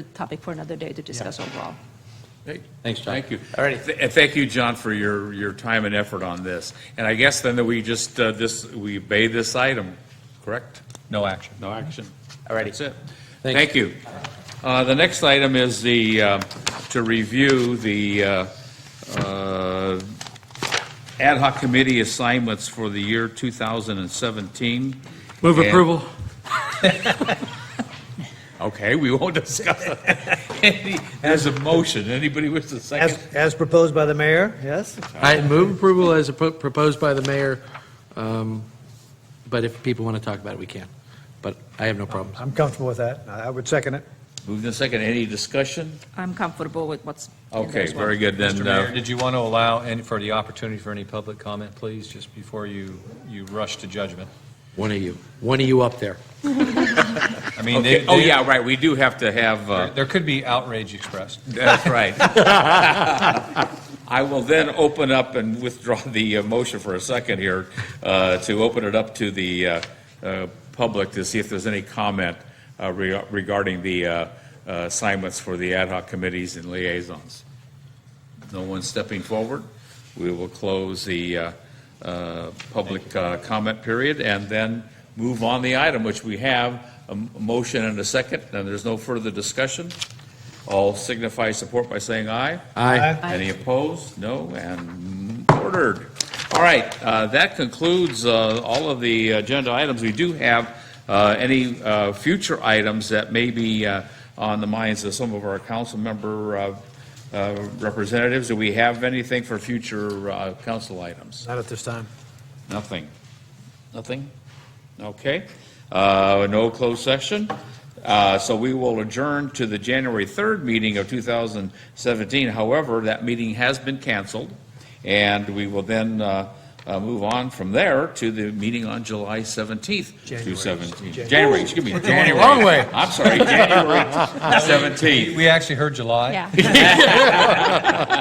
a topic for another day to discuss overall. Hey, Thanks, John. Thank you. All righty. Th- And thank you, John, for your, your time and effort on this. And I guess then that we just, uh, this, we obey this item, correct? No action. No action. All righty. That's it. Thank Thank you. Uh, The next item is the, uh, to review the uh, uh, ad hoc committee assignments for the year 2017. Move And- approval. Okay, we won't discuss it. Any- There's a motion. Anybody wish to second? As, as proposed by the mayor, yes? I move approval as appro- proposed by the mayor, um, but if people want to talk about it, we can. But I have no problems. I'm comfortable with that. I I would second it. Moved in second. Any discussion? I'm comfortable with what's. in there Okay, as well. very good then. Mr. uh, Mayor, did you want to allow any, for the opportunity for any public comment, please, just before you, you rush to judgment? One of you, one of you up there. I mean, they, Okay, oh, they- yeah, right, we do have to have, uh, there could be outrage expressed. that's right. I will then open up and withdraw the uh, motion for a second here, uh, to open it up to the uh, uh, public to see if there's any comment uh, re- regarding the uh, uh, assignments for the ad hoc committees and liaisons. No one stepping forward. We will close the uh, uh, public uh, comment period and then move on the item, which we have a m- motion and a second, and there's no further discussion. All signify support by saying aye. Aye. Any opposed? No, and ordered. All right, uh, that concludes uh, all of the agenda items. We do have uh, any uh, future items that may be uh, on the minds of some of our council member uh, uh, representatives. Do we have anything for future uh, council items? Not at this time. Nothing. Nothing? Okay. Uh, No closed session. Uh, So we will adjourn to the January 3rd meeting of 2017. However, that meeting has been canceled, and we will then uh, uh, move on from there to the meeting on July 17th, January. 2017. January. January, excuse me, January. wrong way. I'm sorry, January 17th. We actually heard July. Yeah.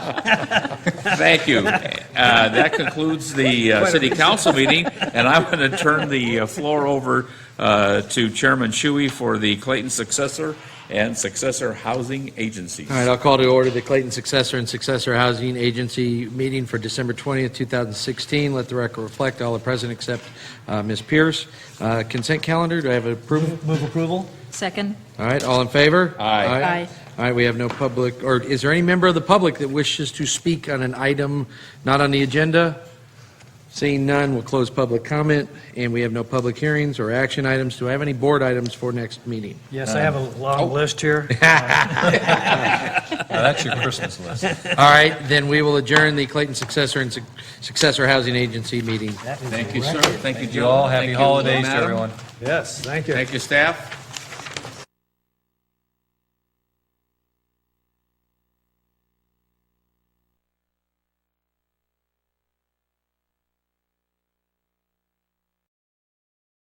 Thank you. Uh, That concludes the uh, city council meeting, and I'm going to turn the uh, floor over uh, to Chairman Shuey for the Clayton Successor and Successor Housing Agencies. All right, I'll call to order the Clayton Successor and Successor Housing Agency meeting for December 20th, 2016. Let the record reflect, all are present except uh, Ms. Pierce. Uh, Consent calendar, do I have approval? Move approval? Second, All right, all in favor? Aye. Aye. All right, we have no public, or is there any member of the public that wishes to speak on an item not on the agenda? Seeing none, we'll close public comment, and we have no public hearings or action items. Do I have any board items for next meeting? Yes, I have a long list here. Now, that's your Christmas list. All right, then we will adjourn the Clayton Successor and Suc- Successor Housing Agency meeting. Thank you, sir. Thank you, You all, Joe. happy Thank you, holidays to madam. everyone. Yes, thank you. Thank you, staff.